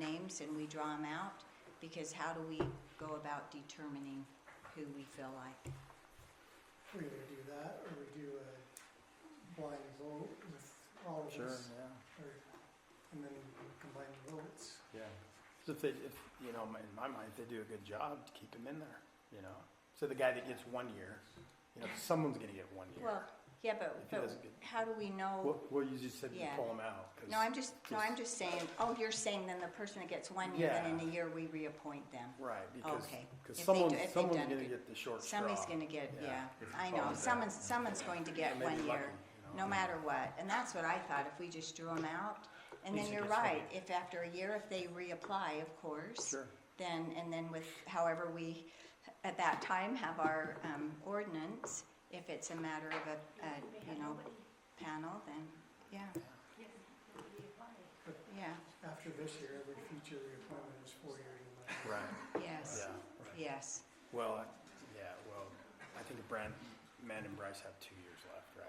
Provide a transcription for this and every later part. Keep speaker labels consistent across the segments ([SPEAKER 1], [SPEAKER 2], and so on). [SPEAKER 1] names and we draw them out? Because how do we go about determining who we feel like?
[SPEAKER 2] We either do that or we do a blind vote with all of
[SPEAKER 3] Sure,
[SPEAKER 2] us.
[SPEAKER 3] yeah,
[SPEAKER 2] Or, and then combine the votes.
[SPEAKER 3] yeah. So if they, if, you know, in my mind, if they do a good job, to keep them in there, you know? So the guy that gets one year, you know, someone's gonna get one year.
[SPEAKER 1] Well, yeah, but,
[SPEAKER 3] If he
[SPEAKER 1] but
[SPEAKER 3] doesn't get-
[SPEAKER 1] how do we know?
[SPEAKER 3] Well, well, you just said you
[SPEAKER 1] Yeah.
[SPEAKER 3] pull them out, 'cause-
[SPEAKER 1] No, I'm just, no, I'm just
[SPEAKER 3] just-
[SPEAKER 1] saying, oh, you're saying then the person that gets one year, then in
[SPEAKER 3] Yeah.
[SPEAKER 1] a year we reappoint them.
[SPEAKER 3] right, because,
[SPEAKER 1] Oh, Okay.
[SPEAKER 3] because
[SPEAKER 1] If they
[SPEAKER 3] someone,
[SPEAKER 1] do- if they've
[SPEAKER 3] someone's
[SPEAKER 1] done a
[SPEAKER 3] gonna
[SPEAKER 1] good-
[SPEAKER 3] get the short straw.
[SPEAKER 1] Somebody's gonna get,
[SPEAKER 3] Yeah.
[SPEAKER 1] yeah,
[SPEAKER 4] If
[SPEAKER 1] I
[SPEAKER 4] it
[SPEAKER 1] know,
[SPEAKER 4] falls
[SPEAKER 1] someone's, someone's going to get
[SPEAKER 3] Maybe
[SPEAKER 1] one
[SPEAKER 3] lucky,
[SPEAKER 1] year,
[SPEAKER 3] you know.
[SPEAKER 1] no matter what, and that's what I thought, if we just drew them out. And then
[SPEAKER 3] Easy
[SPEAKER 1] you're
[SPEAKER 3] gets
[SPEAKER 1] right,
[SPEAKER 3] lucky.
[SPEAKER 1] if after a year, if they reapply, of course.
[SPEAKER 3] Sure.
[SPEAKER 1] Then, and then with however we, at that time, have our, um, ordinance, if it's a matter of a, a, you know, panel, then, yeah, yeah,
[SPEAKER 2] After this year, every future reappointment is four years.
[SPEAKER 3] Right,
[SPEAKER 1] yes,
[SPEAKER 3] yeah, right.
[SPEAKER 1] yes,
[SPEAKER 3] Well, I- yeah, well, I think Brand, Man and Bryce have two years left, right?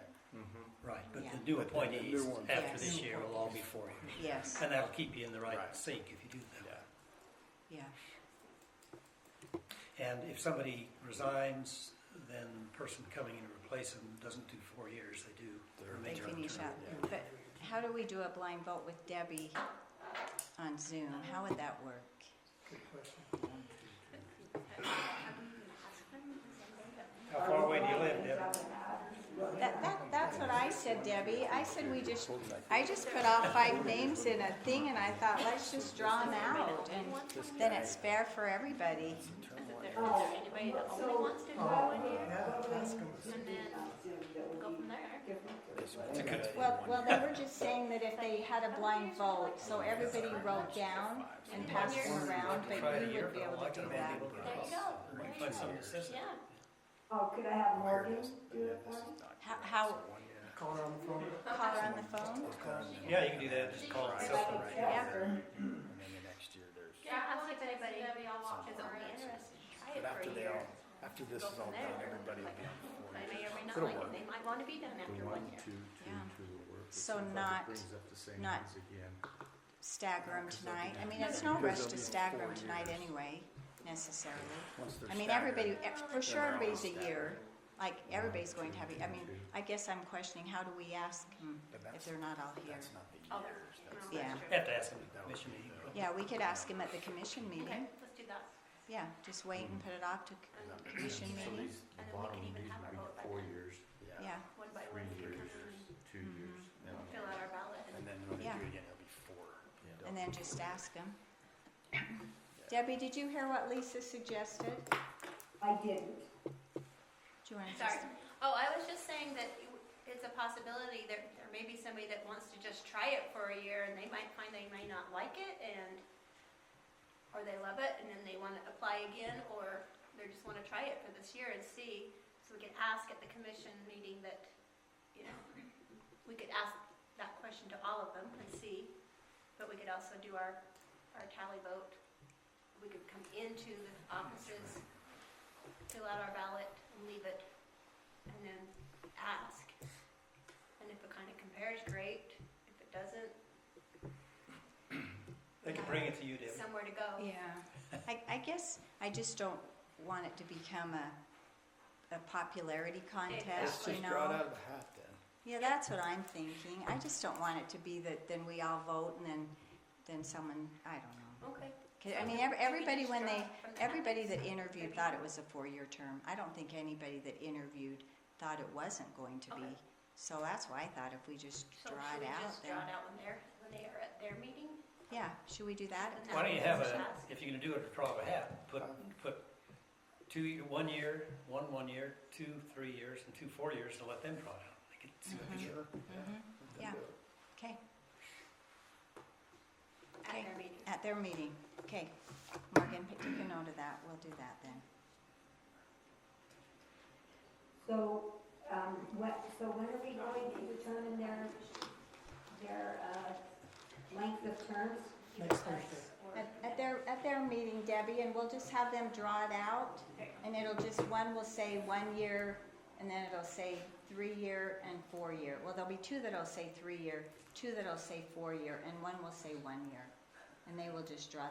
[SPEAKER 5] Right, but
[SPEAKER 1] Yeah.
[SPEAKER 5] the new
[SPEAKER 3] But the- the
[SPEAKER 5] appointees
[SPEAKER 3] new ones.
[SPEAKER 5] after
[SPEAKER 1] Yes.
[SPEAKER 5] this year will all be four years.
[SPEAKER 1] yes,
[SPEAKER 5] And that'll keep you in the right
[SPEAKER 3] Right.
[SPEAKER 5] sync if you do that.
[SPEAKER 3] Yeah.
[SPEAKER 1] yeah,
[SPEAKER 5] And if somebody resigns, then the person coming in to replace them doesn't do four years, they do
[SPEAKER 3] They're-
[SPEAKER 5] their
[SPEAKER 1] they
[SPEAKER 5] major
[SPEAKER 1] finish
[SPEAKER 5] term.
[SPEAKER 1] up. But how do we do a blind vote with Debbie on Zoom? How would that work?
[SPEAKER 2] Good question.
[SPEAKER 5] How far away do you live, Deb?
[SPEAKER 1] That, that, that's what I said, Debbie. I said we just, I just put all five names in a thing and I thought, let's just draw them out and then it's fair for everybody.
[SPEAKER 6] Anybody that only wants to go in here
[SPEAKER 2] Yeah, that's gonna,
[SPEAKER 6] and then go from there.
[SPEAKER 1] Well, well, they were just saying that if they had a blind vote, so everybody wrote down and passed them around, but
[SPEAKER 5] Try it a
[SPEAKER 1] we
[SPEAKER 5] year
[SPEAKER 1] would be
[SPEAKER 5] from
[SPEAKER 1] able
[SPEAKER 5] now, I
[SPEAKER 1] to
[SPEAKER 5] can
[SPEAKER 1] do
[SPEAKER 5] only
[SPEAKER 1] that.
[SPEAKER 5] able to
[SPEAKER 6] There you
[SPEAKER 5] cross-
[SPEAKER 6] go.
[SPEAKER 5] or
[SPEAKER 6] There you
[SPEAKER 5] find someone
[SPEAKER 6] go.
[SPEAKER 5] that says that.
[SPEAKER 6] Yeah.
[SPEAKER 7] Oh, could I have Morgan do it for me?
[SPEAKER 1] How, how,
[SPEAKER 2] call her on the phone.
[SPEAKER 1] call her on the phone?
[SPEAKER 5] Yeah, you can do that, just call it
[SPEAKER 3] Right.
[SPEAKER 5] something.
[SPEAKER 3] Right.
[SPEAKER 1] Yeah.
[SPEAKER 3] And then the next year there's.
[SPEAKER 6] Yeah, I'll see if anybody is
[SPEAKER 3] someone else.
[SPEAKER 6] only interested.
[SPEAKER 3] But
[SPEAKER 6] Try it for
[SPEAKER 3] after
[SPEAKER 6] a
[SPEAKER 3] they
[SPEAKER 6] year.
[SPEAKER 3] all, after this
[SPEAKER 6] Go
[SPEAKER 3] is all
[SPEAKER 6] from
[SPEAKER 3] done,
[SPEAKER 6] there.
[SPEAKER 3] everybody will be on board.
[SPEAKER 6] They may or may not
[SPEAKER 3] It'll
[SPEAKER 6] like
[SPEAKER 3] work.
[SPEAKER 6] it. They might want to be done after one year.
[SPEAKER 1] Yeah.
[SPEAKER 4] So
[SPEAKER 1] So not-
[SPEAKER 4] not,
[SPEAKER 1] not- stagger them tonight. I mean, it's no rush to stagger them tonight anyway, necessarily.
[SPEAKER 3] Once they're
[SPEAKER 1] I mean,
[SPEAKER 3] staggered.
[SPEAKER 1] everybody, ev- for sure,
[SPEAKER 3] they're all
[SPEAKER 1] everybody's a
[SPEAKER 3] staggered.
[SPEAKER 1] year. Like, everybody's going to have, a- I mean, I guess I'm questioning, how do we ask 'em
[SPEAKER 3] But that's-
[SPEAKER 1] if they're not all here?
[SPEAKER 3] That's not the
[SPEAKER 6] Oh, there.
[SPEAKER 3] years, that's,
[SPEAKER 6] Yeah.
[SPEAKER 1] Yeah,
[SPEAKER 5] Have to ask them at the commission meeting.
[SPEAKER 1] yeah, we could ask them at the commission
[SPEAKER 6] Okay,
[SPEAKER 1] meeting.
[SPEAKER 6] let's do that.
[SPEAKER 1] Yeah, just wait
[SPEAKER 3] Mm-hmm.
[SPEAKER 1] and put it off to c- commission
[SPEAKER 4] So
[SPEAKER 1] meeting.
[SPEAKER 4] these, the
[SPEAKER 6] And then we
[SPEAKER 4] bottom,
[SPEAKER 6] can
[SPEAKER 4] these
[SPEAKER 6] even have
[SPEAKER 4] would
[SPEAKER 6] our
[SPEAKER 4] be
[SPEAKER 6] vote by
[SPEAKER 4] four
[SPEAKER 6] then.
[SPEAKER 4] years,
[SPEAKER 3] yeah.
[SPEAKER 1] Yeah,
[SPEAKER 6] One by
[SPEAKER 4] three
[SPEAKER 6] one, you
[SPEAKER 4] years,
[SPEAKER 6] can come in and
[SPEAKER 4] two years. and-
[SPEAKER 6] fill out our ballot and
[SPEAKER 3] And then when they do
[SPEAKER 1] Yeah.
[SPEAKER 3] it again, it'll be four.
[SPEAKER 1] and then just ask them. Debbie, did you hear what Lisa suggested? Do
[SPEAKER 7] I didn't.
[SPEAKER 1] you want to
[SPEAKER 6] Sorry.
[SPEAKER 1] just?
[SPEAKER 6] Oh, I was just saying that you- it's a possibility that there may be somebody that wants to just try it for a year and they might find they may not like it and, or they love it and then they want to apply again or they just want to try it for this year and see. So we could ask at the commission meeting that, you know, we could ask that question to all of them and see. But we could also do our, our tally vote. We could come into the offices, fill out our ballot and leave it and then ask. And if it kind of compares, great. If it doesn't,
[SPEAKER 5] They can bring it to you, Deb.
[SPEAKER 6] somewhere to go.
[SPEAKER 1] Yeah, I, I guess I just don't want it to become a, a popularity
[SPEAKER 6] Let's
[SPEAKER 1] contest,
[SPEAKER 6] just
[SPEAKER 1] you know?
[SPEAKER 3] of the hat then.
[SPEAKER 1] Yeah, that's what I'm thinking. I just don't want it to be that then we all vote and then, then someone, I don't know.
[SPEAKER 6] Okay.
[SPEAKER 1] 'Cause, I mean, ev- everybody when they, everybody that interviewed thought it was a four-year term. I don't think anybody that interviewed thought it wasn't going to be.
[SPEAKER 6] Okay.
[SPEAKER 1] So that's why I thought if we just
[SPEAKER 6] So
[SPEAKER 1] draw
[SPEAKER 6] should
[SPEAKER 1] it
[SPEAKER 6] we
[SPEAKER 1] out
[SPEAKER 6] just
[SPEAKER 1] then.
[SPEAKER 6] draw it out when they're, when they are at their meeting?
[SPEAKER 1] Yeah, should we do that?
[SPEAKER 6] And
[SPEAKER 5] Why don't you have
[SPEAKER 6] Just
[SPEAKER 5] a,
[SPEAKER 6] ask.
[SPEAKER 5] if you're gonna do it, draw a hat, put, put two, year- one year, one one year, two three years, and two four years, and let them draw it out. They can see
[SPEAKER 1] Mm-hmm.
[SPEAKER 5] what they
[SPEAKER 1] Yeah,
[SPEAKER 5] get.
[SPEAKER 1] okay. Okay.
[SPEAKER 6] At their meeting.
[SPEAKER 1] At their meeting. Okay, Morgan, p- take a note of that. We'll do that then.
[SPEAKER 7] So, um, what, so when are we going to determine their, their, uh, length of terms?
[SPEAKER 2] Next Thursday.
[SPEAKER 1] At, at their, at their meeting, Debbie, and we'll just have them draw it out. And it'll just, one will say one year, and then it'll say three-year and four-year. Well, there'll be two that'll say three-year, two that'll say four-year, and one will say one year. And they will just draw